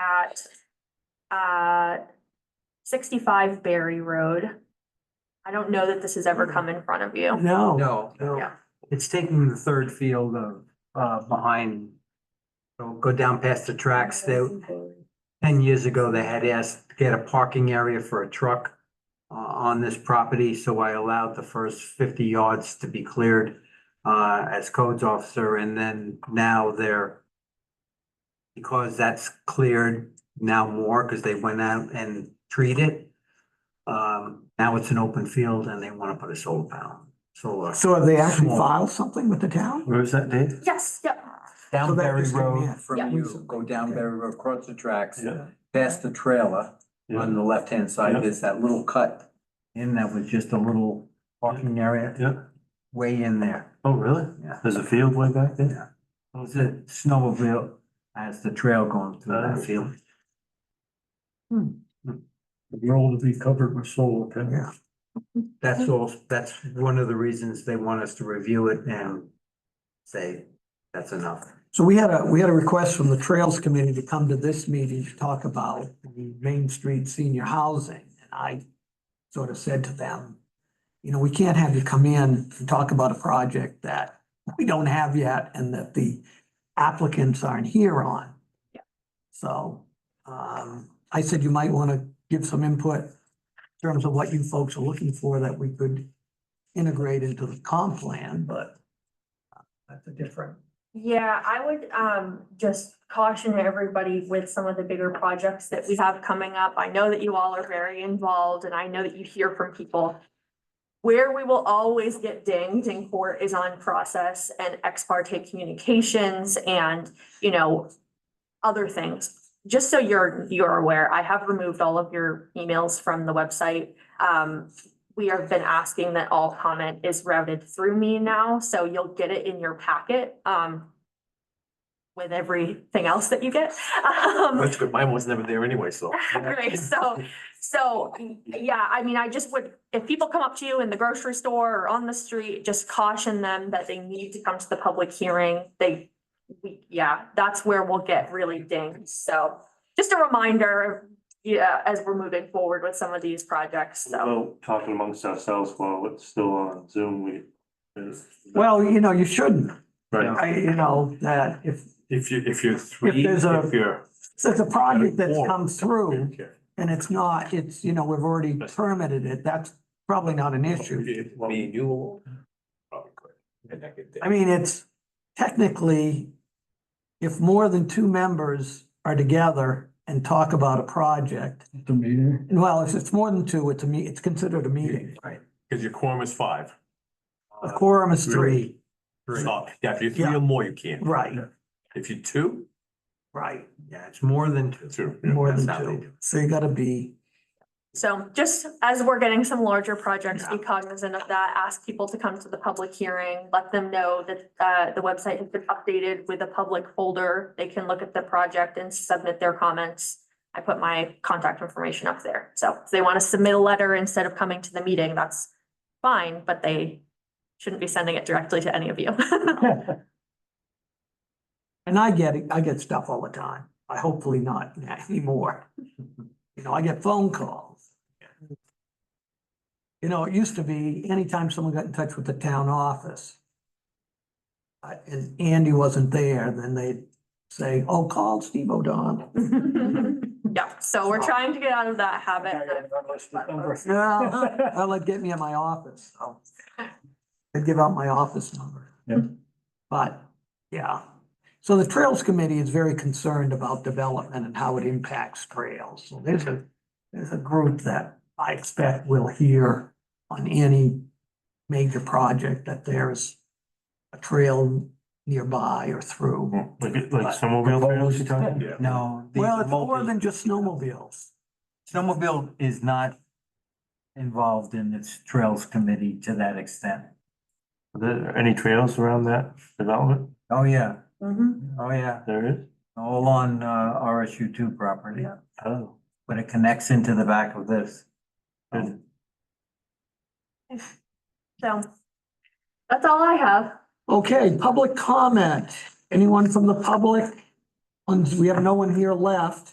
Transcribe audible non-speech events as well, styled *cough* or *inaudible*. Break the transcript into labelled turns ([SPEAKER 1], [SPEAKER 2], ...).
[SPEAKER 1] at uh sixty-five Berry Road. I don't know that this has ever come in front of you.
[SPEAKER 2] No,
[SPEAKER 3] No, no,
[SPEAKER 1] Yeah.
[SPEAKER 2] it's taking the third field of, uh, behind. It'll go down past the tracks. They, ten years ago, they had asked to get a parking area for a truck uh, on this property, so I allowed the first fifty yards to be cleared uh, as codes officer, and then now they're because that's cleared now more, because they went out and treated it. Um, now it's an open field and they want to put a solar panel, solar.
[SPEAKER 3] so have they actually
[SPEAKER 2] Small.
[SPEAKER 3] filed something with the town?
[SPEAKER 4] Where is that, Dave?
[SPEAKER 1] Yes, yep,
[SPEAKER 3] So
[SPEAKER 2] Down
[SPEAKER 3] that
[SPEAKER 2] Berry
[SPEAKER 3] just came
[SPEAKER 2] Road
[SPEAKER 3] in. Yeah.
[SPEAKER 2] from you, go down
[SPEAKER 3] Okay.
[SPEAKER 2] Berry Road, cross the tracks,
[SPEAKER 4] Yeah.
[SPEAKER 2] past the trailer on
[SPEAKER 4] Yeah,
[SPEAKER 2] the left-hand
[SPEAKER 4] Yeah.
[SPEAKER 2] side, there's that little cut in that was just a little parking area
[SPEAKER 4] yeah.
[SPEAKER 2] way in there.
[SPEAKER 4] Oh, really?
[SPEAKER 2] Yeah.
[SPEAKER 4] There's a field way back there?
[SPEAKER 2] Yeah. It was a snowmobile as the trail going through that field.
[SPEAKER 4] The road to be covered with solar, okay?
[SPEAKER 3] Yeah,
[SPEAKER 2] That's all, that's one of the reasons they want us to review it and say, that's enough.
[SPEAKER 3] so we had a, we had a request from the Trails Committee to come to this meeting to talk about the Main Street senior housing. And I sort of said to them, you know, we can't have you come in and talk about a project that we don't have yet and that the applicants aren't here on.
[SPEAKER 1] Yeah.
[SPEAKER 3] So, um, I said you might want to give some input in terms of what you folks are looking for that we could integrate into the comp plan, but uh, that's a different.
[SPEAKER 1] yeah, I would um just caution everybody with some of the bigger projects that we have coming up. I know that you all are very involved and I know that you hear from people. Where we will always get dinged in court is on process and ex parte communications and, you know, other things. Just so you're, you're aware, I have removed all of your emails from the website. Um, we have been asking that all comment is routed through me now, so you'll get it in your packet, um, with everything else that you get. *laughs* Um,
[SPEAKER 4] That's good. Mine was never there
[SPEAKER 3] *laughs*
[SPEAKER 4] anyway, so.
[SPEAKER 1] *laughs* Right, so, so, yeah, I mean, I just would, if people come up to you in the grocery store or on the street, just caution them that they need to come to the public hearing. They, we, yeah, that's where we'll get really dinged, so just a reminder, yeah, as we're moving forward with some of these projects, so.
[SPEAKER 5] Well, talking amongst ourselves while it's still on Zoom, we. is-
[SPEAKER 3] Well, you know, you shouldn't.
[SPEAKER 5] Right,
[SPEAKER 3] I, you know, that if,
[SPEAKER 4] If you, if you're three,
[SPEAKER 3] there's a- Oh,
[SPEAKER 4] if you're.
[SPEAKER 3] so it's a project that's come through
[SPEAKER 4] Okay.
[SPEAKER 3] and it's not, it's, you know, we've already permitted it, that's probably not an issue.
[SPEAKER 4] If Me and you. probably could. And I could-
[SPEAKER 3] I mean, it's technically, if more than two members are together and talk about a project,
[SPEAKER 4] The meeting.
[SPEAKER 3] and well, if it's more than two, it's a me, it's considered a meeting. Right.
[SPEAKER 4] Cause your quorum is five.
[SPEAKER 3] A quorum is three,
[SPEAKER 4] So, yeah, if you're three
[SPEAKER 3] Yeah.
[SPEAKER 4] or more, you can't.
[SPEAKER 3] right,
[SPEAKER 4] If you're two,
[SPEAKER 3] right,
[SPEAKER 2] Yeah, it's more than two.
[SPEAKER 4] two. yeah.
[SPEAKER 3] more
[SPEAKER 2] That's
[SPEAKER 3] than
[SPEAKER 2] how they do
[SPEAKER 3] two,
[SPEAKER 2] it.
[SPEAKER 3] so you gotta be.
[SPEAKER 1] So just as we're getting some larger projects, be
[SPEAKER 3] Yeah.
[SPEAKER 1] cognizant of that, ask people to come to the public hearing, let them know that uh the website has been updated with a public folder. They can look at the project and submit their comments. I put my contact information up there, so if they want to submit a letter instead of coming to the meeting, that's fine, but they shouldn't be sending it directly to any of you. *laughs*
[SPEAKER 4] *laughs*
[SPEAKER 3] And I get it, I get stuff all the time. I hopefully not *laughs* anymore. You know, I get phone calls. You know, it used to be anytime someone got in touch with the town office. uh, And Andy wasn't there, then they'd say, oh, call Steve O'Donnell.
[SPEAKER 1] Yeah, so we're trying to get out of that habit.
[SPEAKER 3] No, well, it'd get me in my office, so. I'd give out my office number.
[SPEAKER 4] Yep.
[SPEAKER 3] But, yeah, so the Trails Committee is very concerned about development and how it impacts trails. So there's a, there's a group that I expect will hear on any major project that there's a trail nearby or through.
[SPEAKER 5] like, like snowmobile trails you're talking?
[SPEAKER 4] Yeah.
[SPEAKER 2] No. the
[SPEAKER 3] Well, it's more
[SPEAKER 2] multi-
[SPEAKER 3] than just snowmobiles.
[SPEAKER 2] Snowmobile is not involved in its Trails Committee to that extent.
[SPEAKER 5] Are there any trails around that development?
[SPEAKER 2] Oh, yeah,
[SPEAKER 1] Mhm.
[SPEAKER 2] oh, yeah,
[SPEAKER 5] There is?
[SPEAKER 2] all on, uh, RSU two property,
[SPEAKER 1] Yeah.
[SPEAKER 5] Oh.
[SPEAKER 2] but it connects into the back of this.
[SPEAKER 5] Good.
[SPEAKER 1] So that's all I have.
[SPEAKER 3] Okay, public comment. Anyone from the public? Ones- We have no one here left.